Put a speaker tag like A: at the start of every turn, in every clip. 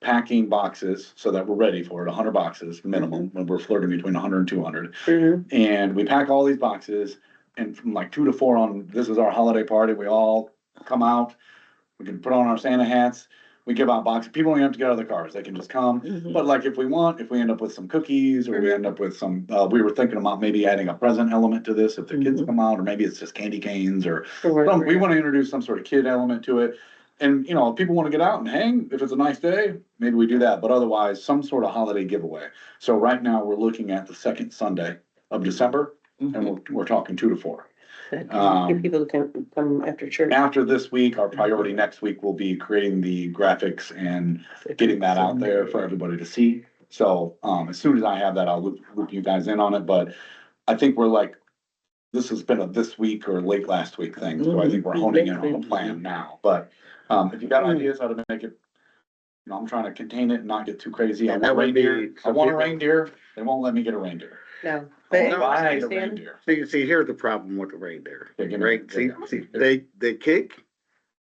A: packing boxes so that we're ready for it, hundred boxes minimum, when we're flirting between 100 and 200.
B: Mhm.
A: And we pack all these boxes and from like two to four on, this is our holiday party, we all come out. We can put on our Santa hats, we give out boxes, people don't even have to get out of their cars, they can just come.
B: Mm-hmm.
A: But like if we want, if we end up with some cookies or we end up with some, uh, we were thinking about maybe adding a present element to this if the kids
B: Mhm.
A: come out, or maybe it's just candy canes or
B: Sure.
A: some, we wanna introduce some sort of kid element to it. And, you know, if people wanna get out and hang, if it's a nice day, maybe we do that, but otherwise, some sort of holiday giveaway. So right now, we're looking at the second Sunday of December, and we're, we're talking two to four.
B: Good.
A: um,
B: Get people to come, come after church.
A: After this week, our priority next week will be creating the graphics and getting that out
C: Mm-hmm.
A: there for everybody to see. So, um, as soon as I have that, I'll loop, loop you guys in on it, but I think we're like, this has been a this week or late last week thing, so I think
C: Mm-hmm.
A: we're honing in on the plan now, but, um, if you
C: Mm.
A: got ideas how to make it, you know, I'm trying to contain it and not get too crazy. I
C: Yeah,
A: want
C: that would be
A: reindeer, I
C: some
A: want a
C: people-
A: reindeer, they won't let me get a reindeer.
B: No.
A: I
B: But
A: wanna buy
B: I
A: the
B: understand.
A: reindeer.
C: See, see, here's the problem with the reindeer,
A: They're gonna-
C: right? See,
A: they're-
C: see, they, they kick,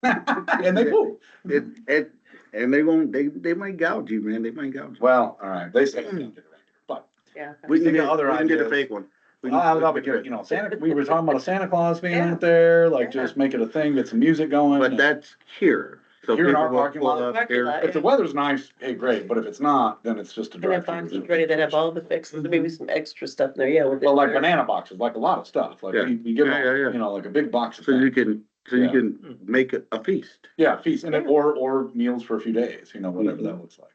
A: And they do.
C: it, it, and they won't, they, they might gouge you, man, they might gouge. you.
A: Well, all right, they say they don't get a reindeer, but
B: Yeah.
C: We can
A: Think of
C: get,
A: other
C: we can get a
A: ideas.
C: fake one. We can-
A: I was
C: we
A: up
C: can
A: against,
C: get-
A: you know, Santa, we were talking about a Santa Claus being
B: Yeah.
A: out there, like
B: Yeah.
A: just make it a thing, get some music going.
C: But that's here. so
A: Here in our
C: people will
A: parking
C: pull
A: lot.
C: up
B: Parking
C: here.
B: lot.
A: If the weather's nice, hey, great, but if it's not, then it's just a
B: And
A: drive.
B: have boxes ready that have all the fixes, maybe some extra stuff in there, yeah. with the-
A: Mm-hmm. Well, like banana boxes, like a lot of stuff, like
C: Yeah.
A: you, you give,
C: Yeah, yeah, yeah.
A: you know, like a big box of
C: So you
A: things.
C: can, so you can make a a feast.
A: Yeah, feast and it, or, or meals for a few days, you know, whatever
C: Mm-hmm.
A: that looks like.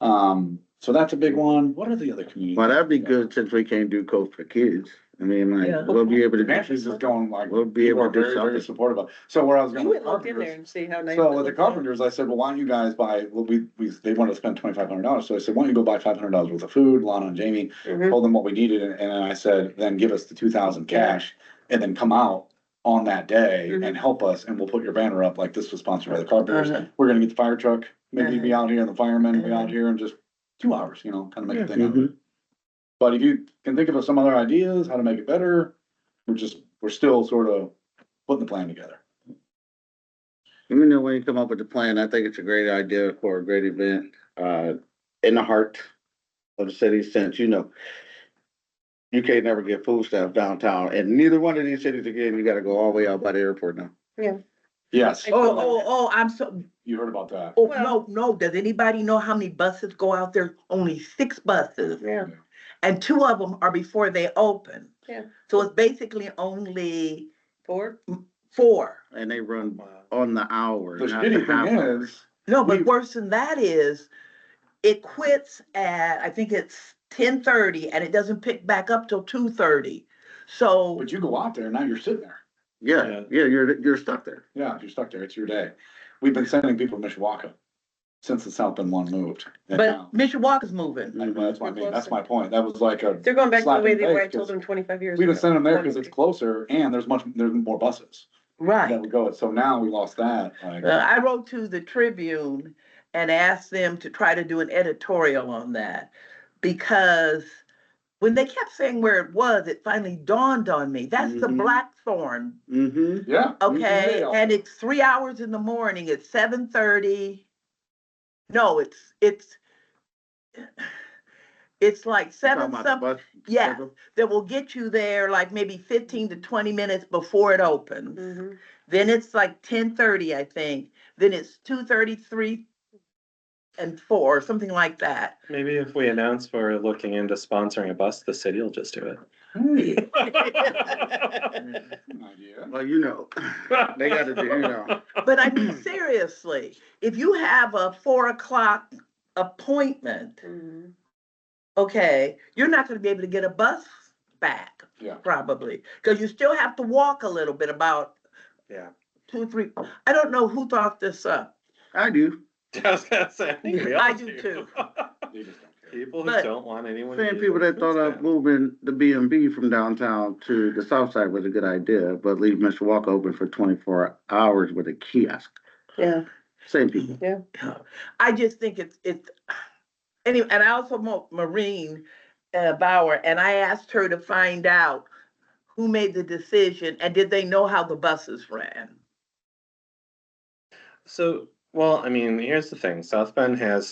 A: Um, so that's a big one. What are the other communities?
C: Well, that'd be good since we can't do Coast for Kids. I mean,
B: Yeah.
C: like, we'll be able to,
A: Nancy's just going like,
C: we'll be
A: people
C: able
A: are
C: to do
A: very, very
C: something.
A: supportive of, so where I was going.
B: You
A: with
B: went looked in
A: Carpenter's-
B: there and see how nice.
A: So
B: it
A: with the
B: looked.
A: carpenters, I said, well, why don't you guys buy, well, we, we, they wanted to spend twenty-five hundred dollars, so I said, why don't you go buy five hundred dollars worth of food, Lana and Jamie,
B: Mhm.
A: told them what we needed, and and then I said, then give us the two thousand cash, and then come out on that day and
B: Mhm.
A: help us, and we'll put your banner up, like this was sponsored by the carpenters,
B: Uh-huh.
A: we're gonna get the fire truck, maybe
B: Uh-huh.
A: be out here, and the firemen will be
B: Uh-huh.
A: out here in just two hours, you know, kind of make a thing out of it.
C: Mhm.
A: But if you can think of some other ideas, how to make it better, we're just, we're still sort of putting the plan together.
C: Let me know when you come up with the plan. I think it's a great idea for a great event, uh, in the heart of the city since, you know, you can't never get food stamps downtown and neither one of these cities again, you gotta go all the way out by the airport now.
A: Yes,
D: Oh, oh, oh, I'm so,
A: you heard about that.
D: oh,
B: Well-
D: no, no, does anybody know how many buses go out there? Only six buses,
B: Yeah,
D: and two of them are before they open.
B: Yeah.
D: So it's basically only
B: four,
D: four.
C: And they run on the hour.
A: The
C: not
A: shitty
C: half
A: thing
C: hour.
A: is,
D: No,
A: We-
D: but worse than that is, it quits at, I think it's ten thirty, and it doesn't pick back up till two thirty. So,
A: but you go out there, now you're sitting there.
C: Yeah, yeah, you're, you're stuck there.
A: Yeah, you're stuck there. It's your day. We've been sending people to Mishawaka since the South Bend one moved. And now-
D: but Mishawaka's moving.
A: I-
C: Mm-hmm.
A: well, That's my, main- that's my point. That was like a,
B: they're going back to the
A: Slap
B: way
A: in
B: they
A: the
B: were, I
A: face,
B: told
A: 'cause
B: them twenty-five years.
A: we
B: ago.
A: didn't send them there because it's closer and there's much, there's more buses
D: Right.
A: that would go. So now we lost that. like-
D: Uh, I wrote to the Tribune and asked them to try to do an editorial on that because when they kept saying where it was, it finally dawned on me. That's the
C: Mhm.
D: Blackthorn,
C: Mm-hmm.
A: Yeah.
D: okay?
A: Yeah.
D: And it's three hours in the morning. It's seven thirty. No, it's it's it's like seven something. Yeah, that will get you there like maybe fifteen to twenty minutes before it opens.
B: Mhm.
D: Then it's like ten thirty, I think. Then it's two thirty, three and four, something like that.
E: Maybe if we announce we're looking into sponsoring a bus, the city will just do
A: Hey,
E: it.
A: good idea.
C: Well, you know, they gotta do, you know.
D: But I mean, seriously, if you have a four o'clock appointment,
B: Mhm.
D: okay, you're not gonna be able to get a bus back.
A: Yeah.
D: Probably, because you still have to walk a little bit about.
E: Yeah.
D: Two, three, I don't know who thought this up.
C: I do.
E: I was gonna say, I think we all
D: I do too.
A: They just don't care.
E: People who
D: But-
E: don't want anyone. to
C: Saying
E: use
C: people
E: their
C: that thought
E: food
C: of
E: stamps.
C: moving the B and B from downtown to the south side was a good idea, but leave Mishawaka open for twenty-four hours with a kiosk.
B: Yeah,
C: Same people.
D: I just think it's, it's, anyway, and I also mo- Maureen uh, Bauer, and I asked her to find out who made the decision and did they know how the buses ran?
E: So Well, I mean, here's the thing, South Bend has